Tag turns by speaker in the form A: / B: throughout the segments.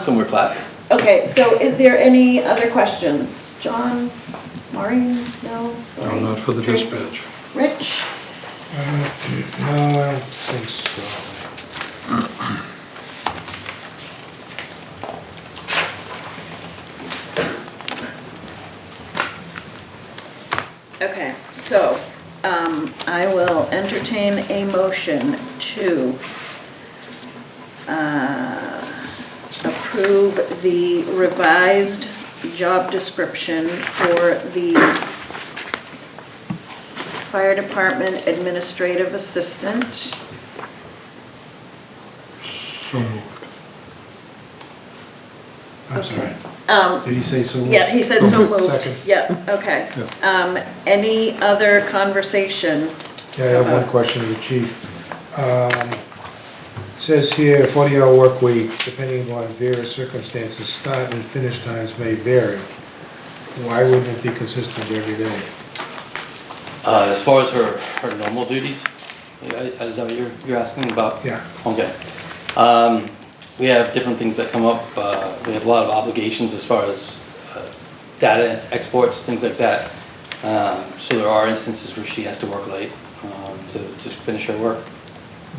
A: somewhere classic.
B: Okay, so is there any other questions? John, Maureen, no?
C: No, not for the
B: Tracy?
C: dispatch.
B: Rich?
D: No, I don't think so.
B: Okay, so um, I will entertain a motion to uh, approve the revised job description for the Fire Department Administrative Assistant.
D: So moved. I'm sorry.
B: Um,
D: Did he say so moved?
B: Yeah, he said so moved.
D: Second.
B: Yeah, okay.
D: Yeah.
B: Um, Any other conversation?
D: Yeah, I have one question to the chief. Um, it Says here, forty-hour work week, depending on various circumstances, start and finish times may vary. Why wouldn't it be consistent every day?
A: Uh, as far as her, her normal duties, uh, is that what you're, you're asking about?
D: Yeah.
A: Okay. Um, we have different things that come up. Uh, we have a lot of obligations as far as uh, data exports, things like that. Um, so there are instances where she has to work late um, to, to finish her work.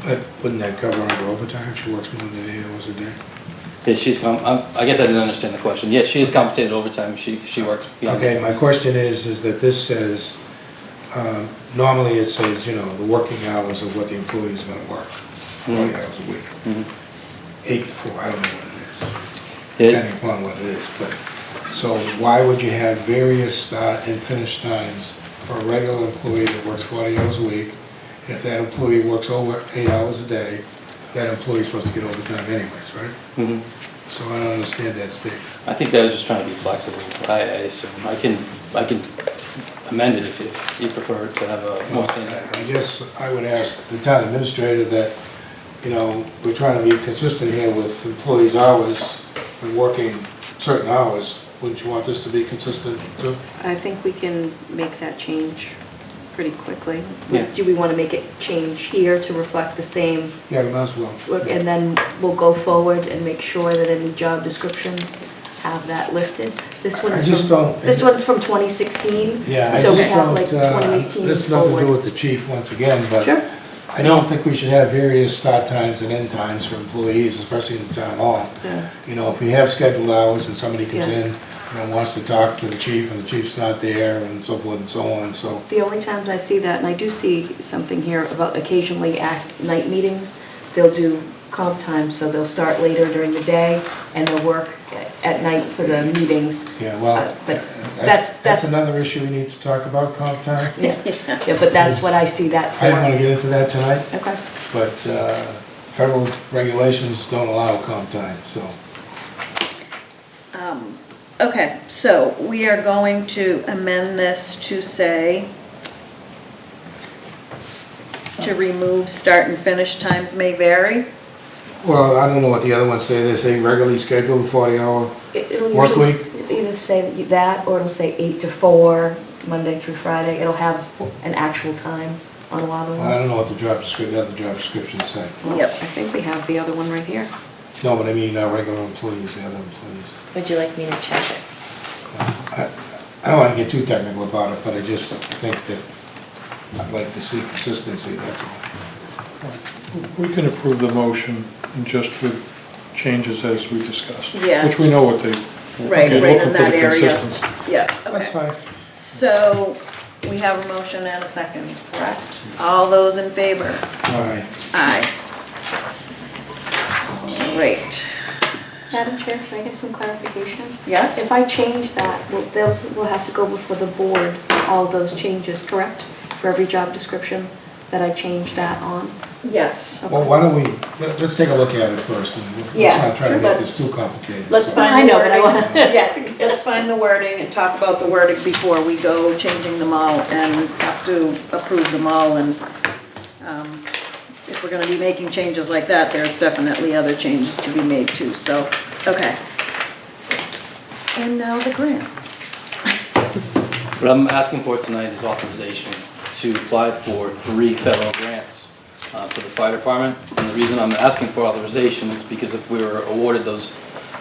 D: But wouldn't that cover under overtime? She works more than eight hours a day.
A: Yeah, she's com- I'm, I guess I didn't understand the question. Yeah, she is compensated overtime. She she works beyond.
D: Okay, my question is, is that this says, um, normally it says, you know, the working hours of what the employee's gonna work, forty hours a week. Eight to four, I don't know what it is,
A: Yeah.
D: depending upon what it is, but, so why would you have various start and finish times for a regular employee that works forty hours a week? If that employee works over eight hours a day, that employee's supposed to get overtime anyways, right?
A: Mhm.
D: So I don't understand that statement.
A: I think they were just trying to be flexible. I, I assume I can I can amend it if, if you prefer to have a more standard.
D: I guess I would ask the town administrator that, you know, we're trying to be consistent here with employees' hours and working certain hours. Wouldn't you want this to be consistent too?
E: I think we can make that change pretty quickly.
A: Yeah.
E: Do we want to make it change here to reflect the same?
D: Yeah, you might as well.
E: look, And then we'll go forward and make sure that any job descriptions have that listed. This
D: I
E: one's
D: just
E: from,
D: don't-
E: this one's from 2016.
D: Yeah, I
E: So we
D: just
E: have like
D: don't, uh,
E: 2018
D: This has nothing to do
E: forward.
D: with the chief once again, but
E: Sure.
D: I don't think we should have various start times and end times for employees, especially in the town hall.
E: Yeah.
D: You know, if we have scheduled hours and somebody comes
E: Yeah.
D: in, you know, wants to talk to the chief and the chief's not there and so forth and so on, so.
E: The only times I see that, and I do see something here about occasionally asked night meetings, they'll do comp time, so they'll start later during the day and they'll work at night for the meetings.
D: Yeah, well,
E: Uh, But
D: that's,
E: that's,
D: that's
E: that's,
D: another issue we need to talk about, comp time.
E: yeah, but that's what I see that for.
D: I didn't want to get into that tonight,
E: Okay,
D: but uh, federal regulations don't allow comp time, so.
B: Um, Okay, so we are going to amend this to say, to remove start and finish times may vary.
D: Well, I don't know what the other ones say, they say regularly scheduled forty hour.
E: It- it'll
D: Work
E: usually s- either say that, or it'll say eight to four, Monday through Friday, it'll have an actual time on a lot of them.
D: I don't know what the job description, the other job descriptions say.
B: Yep.
E: I think we have the other one right here.
D: No, but I mean, our regular employees, the other employees.
F: Would you like me to check it?
D: I I don't want to get too technical about it, but I just think that I'd like to see consistency, that's all.
C: We can approve the motion and just with changes as we discussed.
B: Yeah.
C: Which we know what they.
B: Right, right
C: okay, looking
B: in
C: for
B: that
C: the
B: area.
C: consistency.
B: Yeah,
D: That's
B: okay.
D: fine.
B: So we have a motion and a second, correct? All those in favor?
D: All right.
B: Aye. Great.
E: Madam Chair, can I get some clarification?
B: Yeah.
E: If I change that, will- those will have to go before the board, all those changes, correct? For every job description that I change that on?
B: Yes.
D: Well, why don't we, let- let's take a look at it first, and let's
B: Yeah,
D: not try to make
B: let's-
D: this too complicated.
B: Let's
D: So-
E: I
B: find the
E: know, but I
B: wording.
E: wanna-
B: Yeah, let's find the wording and talk about the wording before we go changing them all and have to approve them all. And um, if we're going to be making changes like that, there's definitely other changes to be made too, so, okay. And now the grants.
A: What I'm asking for tonight is authorization to apply for three federal grants uh, for the fire department. And the reason I'm asking for authorization is because if we were awarded those